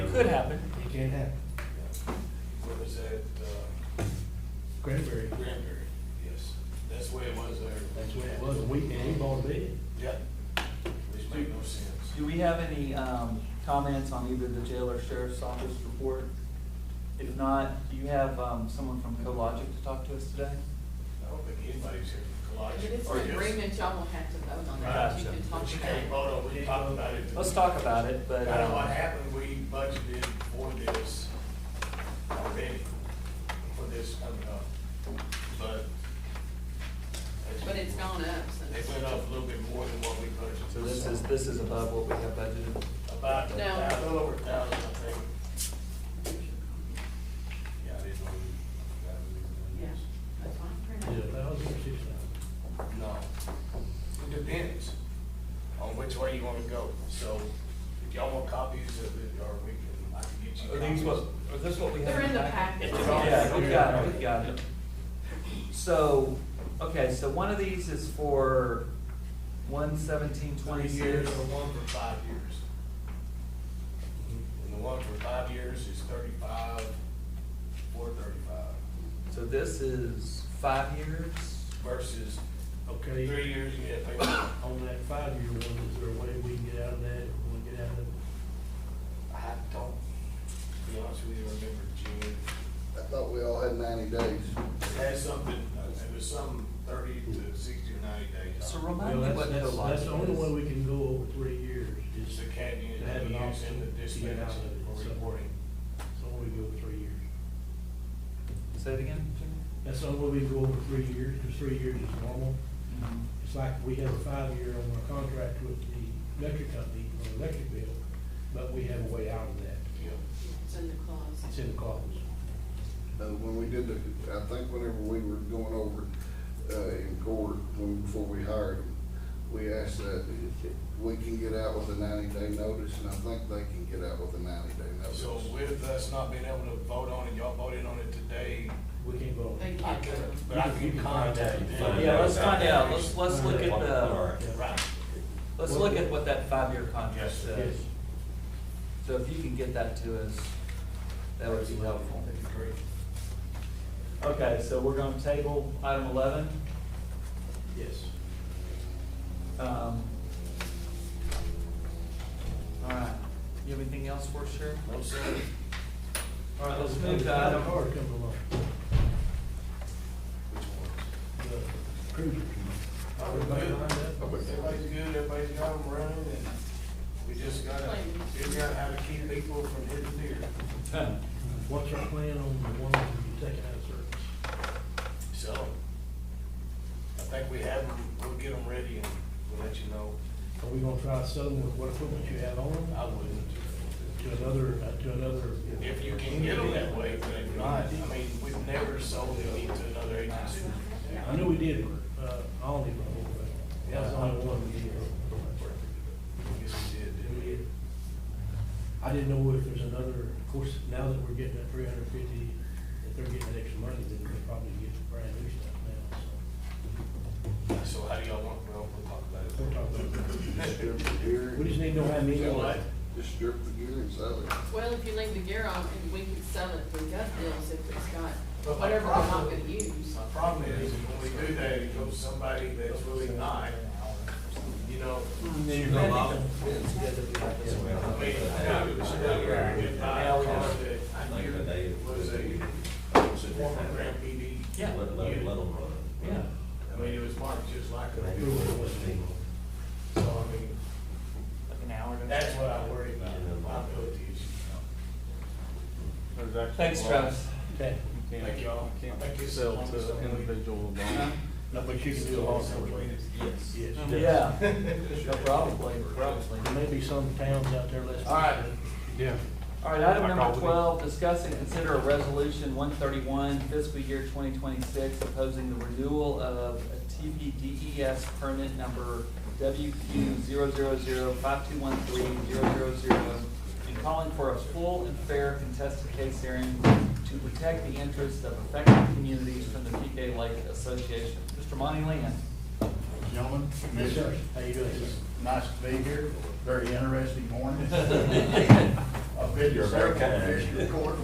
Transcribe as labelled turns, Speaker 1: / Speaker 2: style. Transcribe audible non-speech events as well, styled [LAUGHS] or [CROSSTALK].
Speaker 1: happen, it can happen.
Speaker 2: What was that, uh,
Speaker 1: Cranberry,
Speaker 2: Granbury? Yes, that's the way it was there.
Speaker 1: that's what it was, a weekend, he bought a bed.
Speaker 2: Yeah. Which made no sense.
Speaker 3: Do we have any um, comments on either the jail or sheriff's office report? If not, do you have um, someone from CoLogic to talk to us today?
Speaker 2: I don't think anybody's here from Cologic.
Speaker 4: If it's
Speaker 2: or
Speaker 4: an
Speaker 2: Oh, yes.
Speaker 4: agreement, y'all will have to vote on that,
Speaker 2: Right,
Speaker 4: you can talk
Speaker 2: but you can't
Speaker 4: about
Speaker 2: vote on, we talked about it.
Speaker 3: Let's talk about it,
Speaker 2: I
Speaker 3: but.
Speaker 2: don't know
Speaker 3: um,
Speaker 2: what happened, we budgeted for this already, for this coming up, but.
Speaker 4: it, but it's gone up since.
Speaker 2: It went up a little bit more than what we budgeted.
Speaker 3: So this is, this is above what we have budgeted.
Speaker 2: About a
Speaker 4: No.
Speaker 2: thou- a little over a thousand, I think. Yeah, it is.
Speaker 4: Yeah,
Speaker 1: Is it
Speaker 4: that's
Speaker 1: a
Speaker 4: fine.
Speaker 1: thousand or six thousand?
Speaker 2: No, it depends on which way you wanna go, so if y'all want copies of it, or we can, I can get you
Speaker 3: Are
Speaker 2: copies.
Speaker 3: these what, are this what we have?
Speaker 4: They're in the packet.
Speaker 3: Yeah, we got it, we got it. So, okay, so one of these is for one seventeen
Speaker 2: Twenty
Speaker 3: twenty-six.
Speaker 2: years or one for five years. And the one for five years is thirty-five, four thirty-five
Speaker 3: So this is five years?
Speaker 2: versus
Speaker 1: Okay.
Speaker 2: three years, you have to pay.
Speaker 1: On that five-year one, is there a way we can get out of that, if we can get out of it?
Speaker 2: I don't, to be honest with you, remember June.
Speaker 5: I thought we all had ninety days.
Speaker 2: It had something, it was some thirty to sixty or ninety days.
Speaker 3: So
Speaker 1: Well,
Speaker 3: remind me
Speaker 1: that's,
Speaker 3: what
Speaker 1: that's, that's
Speaker 3: CoLogic
Speaker 1: the only
Speaker 3: is.
Speaker 1: way we can go over three years,
Speaker 2: It's
Speaker 1: is
Speaker 2: the CAD unit
Speaker 1: To
Speaker 2: that
Speaker 1: have
Speaker 2: we
Speaker 1: an
Speaker 2: use in the
Speaker 1: option to get
Speaker 2: dispatch
Speaker 1: out of it,
Speaker 2: for
Speaker 1: so-
Speaker 2: reporting.
Speaker 1: that's the only way we go over three years.
Speaker 3: Say it again, Jimmy?
Speaker 1: That's the only way we can go over three years, because three years is normal. It's like we have a five-year on our contract with the electric company, on the electric bill, but we have a way out of that.
Speaker 2: Yeah.
Speaker 4: It's in the
Speaker 1: It's
Speaker 4: clause.
Speaker 1: in the clause.
Speaker 5: Uh, when we did the, I think whenever we were going over, uh, in court, when, before we hired them, we asked that if we can get out with a ninety-day notice, and I think they can get out with a ninety-day notice.
Speaker 2: So with us not being able to vote on it, y'all voted on it today,
Speaker 1: We can't vote.
Speaker 4: They
Speaker 2: I
Speaker 4: can't.
Speaker 2: could, but I can contact them.
Speaker 3: Yeah, let's find out, let's, let's look at the,
Speaker 1: Yeah.
Speaker 2: Right.
Speaker 3: let's look at what that five-year contract
Speaker 2: Yes.
Speaker 3: says. So if you can get that to us, that would be helpful.
Speaker 2: That'd be great.
Speaker 3: Okay, so we're gonna table item eleven.
Speaker 1: Yes.
Speaker 3: Um, All right, you have anything else for us, Sheriff?
Speaker 2: No, sir.
Speaker 3: All right, let's move to item,
Speaker 1: Car
Speaker 2: [LAUGHS]
Speaker 1: coming along,
Speaker 2: Which ones?
Speaker 1: the cruiser. Everybody lined up?
Speaker 2: Everybody's good, everybody's got them running, and we just gotta figure out how to keep people from hitting deer.
Speaker 1: What's our plan on the one that we're taking out of service?
Speaker 2: So, I think we have them, we'll get them ready and we'll let you know.
Speaker 1: Are we gonna try to sell them with what equipment you have on them?
Speaker 2: I wouldn't.
Speaker 1: To another, uh, to another.
Speaker 2: If you can get them that way, but if not, I mean, we've never sold them into another agency.
Speaker 1: I knew we did, uh, Aldi before, but that was the only one we did.
Speaker 2: Yes, we did, didn't we?
Speaker 1: I didn't know if there's another, of course, now that we're getting that three hundred fifty, if they're getting that extra money, then we will probably get brand new stuff now, so.
Speaker 2: So how do y'all want, well, we'll talk about it.
Speaker 1: We'll talk about
Speaker 5: Just strip the gear.
Speaker 1: We just need to know how many.
Speaker 2: You know what?
Speaker 5: Just strip the gear and sell it.
Speaker 4: Well, if you leave the gear on, and we can sell it through gut deals if it's got whatever we're not gonna use.
Speaker 2: My problem is, when we do that, it goes somebody that's really not, you know, I mean, I got a good guy, I called it, I knew it was a former grand PD.
Speaker 3: Yeah.
Speaker 6: Let, let, let them
Speaker 3: yeah,
Speaker 6: run.
Speaker 2: I mean, it was marked just like a,
Speaker 6: Maybe we'll just leave 'em.
Speaker 2: so I mean,
Speaker 3: like an hour. to-
Speaker 2: that's what I worry about, liability issue.
Speaker 3: Thanks, Travis.
Speaker 1: Okay.
Speaker 2: Thank y'all. Thank you.
Speaker 7: Sell to individual bond.
Speaker 1: No, but you can do a lot of ways.
Speaker 3: Yes.
Speaker 1: Yes.
Speaker 3: Yeah, No, probably, probably.
Speaker 1: There may be some towns out there less.
Speaker 3: All right.
Speaker 7: Yeah.
Speaker 3: All right, item
Speaker 7: I call
Speaker 3: number
Speaker 7: it.
Speaker 3: twelve, discuss and consider a resolution one thirty-one fiscal year twenty twenty-six opposing the renewal of a TPDES E permit number WQ 5213 and calling for a full and fair contested case hearing to protect the interests of affected communities from the PK Lake Association. Mr. Monty Land.
Speaker 8: Gentlemen,
Speaker 1: Yes, sir.
Speaker 8: commissioners,
Speaker 1: How you doing?
Speaker 6: [LAUGHS]
Speaker 8: nice to be here, very interesting morning.
Speaker 3: Yes,
Speaker 8: I've
Speaker 2: You're a very kind.